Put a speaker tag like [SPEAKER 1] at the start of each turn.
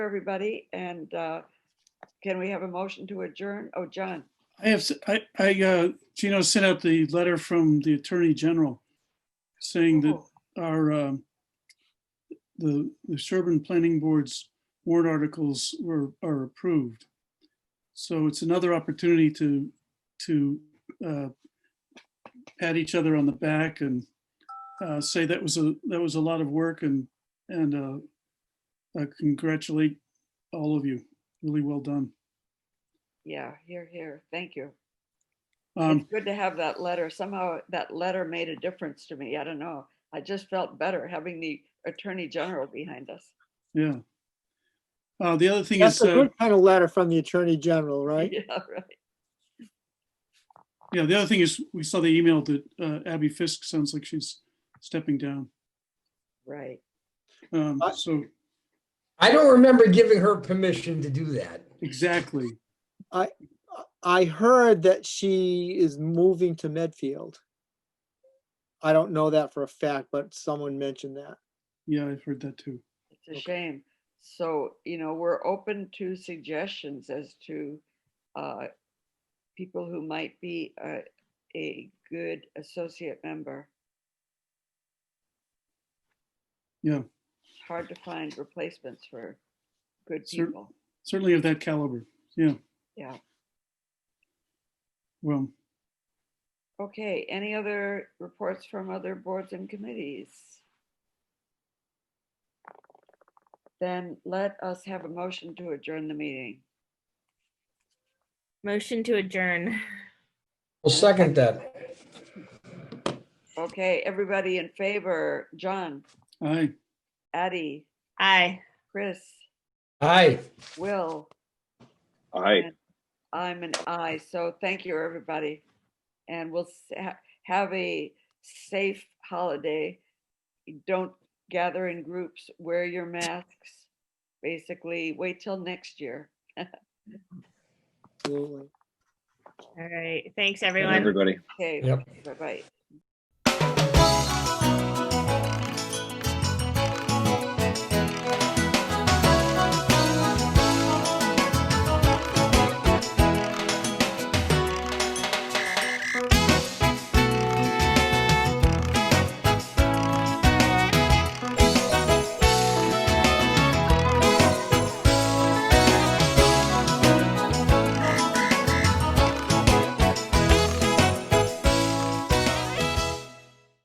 [SPEAKER 1] everybody, and uh, can we have a motion to adjourn? Oh, John,
[SPEAKER 2] I have, s- I, I, uh, Gino sent out the letter from the Attorney General saying that
[SPEAKER 1] Oh.
[SPEAKER 2] our, um, the, the Sherburne Planning Board's warrant articles were, are approved. So it's another opportunity to, to, uh, pat each other on the back and, uh, say that was a, that was a lot of work and, and, uh, uh, congratulate all of you. Really well done.
[SPEAKER 1] yeah, here, here, thank you.
[SPEAKER 2] Um,
[SPEAKER 1] It's good to have that letter. Somehow that letter made a difference to me. I don't know. I just felt better having the Attorney General behind us.
[SPEAKER 2] Yeah. Uh, the other thing
[SPEAKER 3] That's
[SPEAKER 2] is,
[SPEAKER 3] a
[SPEAKER 2] uh,
[SPEAKER 3] good kind of letter from the Attorney General, right?
[SPEAKER 1] Yeah, right.
[SPEAKER 2] yeah, the other thing is, we saw the email that uh, Abby Fisk sounds like she's stepping down.
[SPEAKER 1] Right.
[SPEAKER 2] Um,
[SPEAKER 3] I-
[SPEAKER 2] so
[SPEAKER 4] I don't remember giving her permission to do that.
[SPEAKER 2] exactly,
[SPEAKER 3] I heard that she is moving to Medfield. I don't know that for a fact, but someone mentioned that.
[SPEAKER 2] yeah, I've heard that too.
[SPEAKER 1] It's a shame. So, you know, we're open to suggestions as to uh, people who might be a, a good associate member.
[SPEAKER 2] Yeah.
[SPEAKER 1] It's hard to find replacements for good
[SPEAKER 2] Cer-
[SPEAKER 1] people.
[SPEAKER 2] Certainly of that caliber. Yeah.
[SPEAKER 1] Yeah.
[SPEAKER 2] Well,
[SPEAKER 1] Okay, any other reports from other boards and committees? Then let us have a motion to adjourn the meeting.
[SPEAKER 5] Motion to adjourn.
[SPEAKER 4] We'll second that.
[SPEAKER 1] Okay, everybody in favor, John,
[SPEAKER 2] aye.
[SPEAKER 1] Addie,
[SPEAKER 5] Aye.
[SPEAKER 1] Chris,
[SPEAKER 4] Aye.
[SPEAKER 1] Will,
[SPEAKER 6] Aye.
[SPEAKER 1] I'm an I, so thank you, everybody. And we'll s- ha- have a safe holiday. Don't gather in groups, wear your masks. Basically, wait till next year.
[SPEAKER 3] Absolutely.
[SPEAKER 5] All right. Thanks,
[SPEAKER 6] Good night,
[SPEAKER 5] everyone.
[SPEAKER 6] Everybody.
[SPEAKER 1] Okay,
[SPEAKER 4] Yep.
[SPEAKER 1] bye-bye.